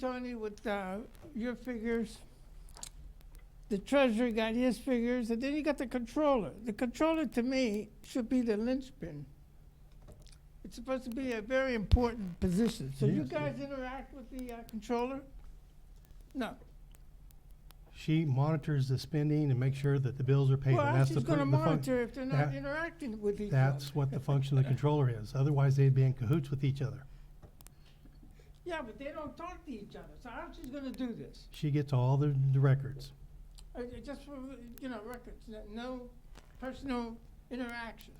Tony, with uh, your figures. The treasurer got his figures, and then you got the controller. The controller, to me, should be the linchpin. It's supposed to be a very important position. So you Yes, yeah. guys interact with the uh, controller? No. She monitors the spending and makes sure that the bills are paid. Well, and that's the she's going to fun- the fun- monitor if they're not that- interacting with each other. That's what the function of the controller is. Otherwise, they'd be in cahoots with each other. Yeah, but they don't talk to each other. So how's she going to do this? She gets all the, the records. Uh, uh, Just for, you know, records, no- no personal interaction.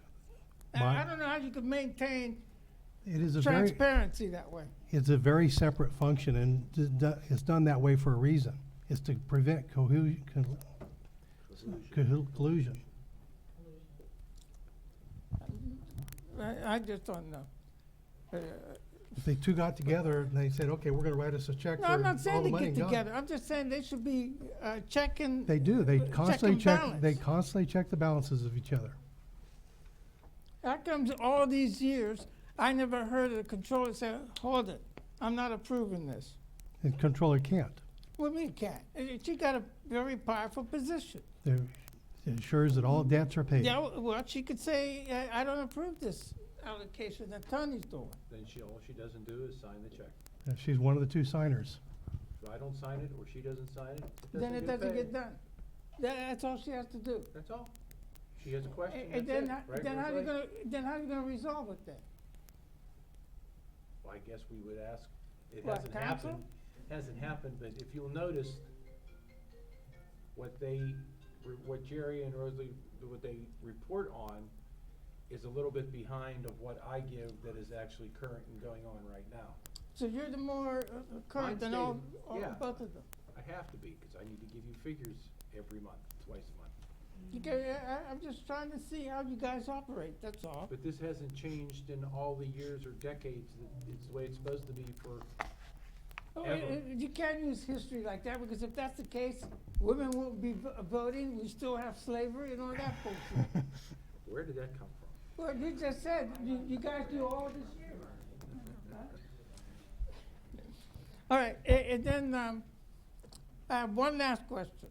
And I My- don't know how you could maintain It is a very, transparency that way. it's a very separate function and d- d- it's done that way for a reason. It's to prevent cohu- con- cohu- collusion. I, I just don't know. Uh, If they two got together and they said, okay, we're gonna write us a check No, for all I'm the not saying to money get and gone." together. I'm just saying they should be uh, checking. They do. They Check constantly and check, they balance. constantly check the balances of each other. How comes all these years, I never heard of the controller say, hold it, I'm not approving this. The controller can't. What do you mean can't? Uh, She got a very powerful position. They're- It ensures that all debts are paid. Yeah, w- well, she could say, "I- I don't approve this allocation that Tony's doing. Then she, all she doesn't do is sign the check. Uh, She's one of the two signers. If I don't sign it, or she doesn't sign it, it Then it doesn't doesn't get get paid. done. Tha- That's all she has to do. That's all. She has a A- question, And that's then, it. ho- Right, then right, how you right. gonna, then how you gonna resolve it then? Well, I guess we would ask, it What, hasn't counsel? happened, hasn't happened, but if you'll notice, what they, re- what Jerry and Rosalie, what they report on is a little bit behind of what I give that is actually current and going on right now. So you're the more uh, uh, current Mine's than all, dated, all, yeah. both of them. I have to be, because I need to give you figures every month, twice a month. You ca- I, I- I'm just trying to see how you guys operate, that's all. But this hasn't changed in all the years or decades. that It's the way it's supposed to be for, Oh, ever. uh, uh, You can't use history like that, because if that's the case, women won't be vo- voting, we still have slavery and all that bullshit. where did that come from? Well, you just said, you, you guys do all this year. All right, a- and, then, um, I have one last question.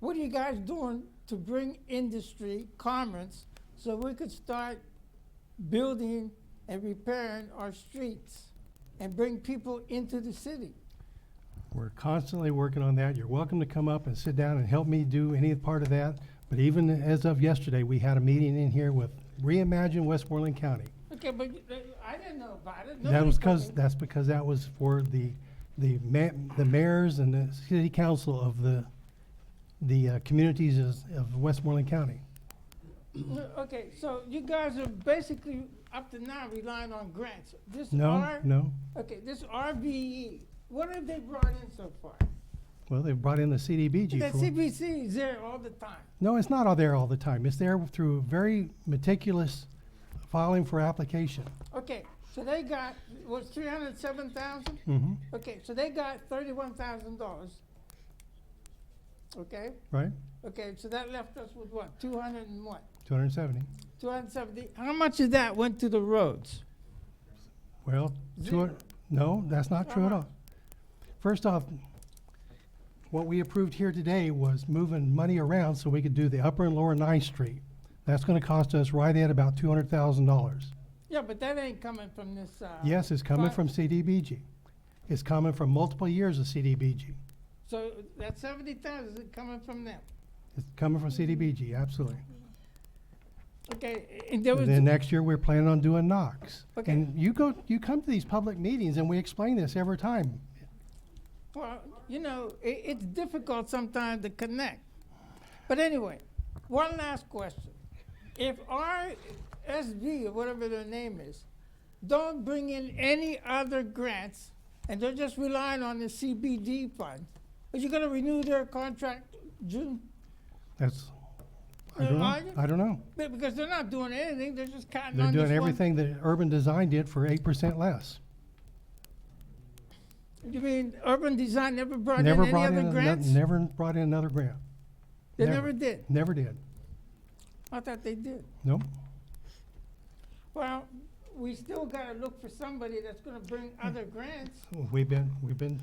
What are you guys doing to bring industry, commerce, so we could start building and repairing our streets and bring people into the city? We're constantly working on that. You're welcome to come up and sit down and help me do any part of that. But even as of yesterday, we had a meeting in here with Reimagine Westmoreland County. Okay, but you- uh, I didn't know about it. That Nobody was told because, me. that's because that was for the, the ma- the mayors and the city council of the, the uh, communities is- of Westmoreland County. Okay, so you guys are basically up to now relying on grants. This No, R, no. okay, this RVE, what have they brought in so far? Well, they brought in the The CDBG for, CBC is there all the time. no, it's not all there all the time. It's there through very meticulous filing for application. Okay, so they got, was three hundred seven thousand? hmm Okay, so they got thirty-one thousand dollars. Okay, right? okay, so that left us with what, two hundred and what? Two hundred and seventy. Two hundred and seventy, how much of that went to the roads? Well, two, hun- Zero. no, that's not true at Why all. First off, what we approved here today was moving money around so we could do the upper and lower Ninth Street. That's gonna cost us right at about two hundred thousand dollars. Yeah, but that ain't coming from this, uh. Yes, it's coming fi- from CDBG. It's coming from multiple years of CDBG. So that seventy thousand is coming from them. It's coming from CDBG, absolutely. Okay, and there was, And then next year, we're planning on doing Knox. Okay. And you go, you come to these public meetings and we explain this every time. well, you know, i it's difficult sometimes to connect. But anyway, one last question. If RSV, or whatever their name is, don't bring in any other grants, and they're just relying on the CBD fund, are you gonna renew their contract June? That's, I Uh, don't are know, you? I don't know. Be- Because they're not doing anything, they're just counting They're on this one. doing everything that urban design did for eight percent less. You mean urban design never brought in Never any brought in, other ano- grants? never brought in another grant, They never. never did. never did, I thought they did. nope. Well, we still gotta look for somebody that's gonna bring other grants. We've been, we've been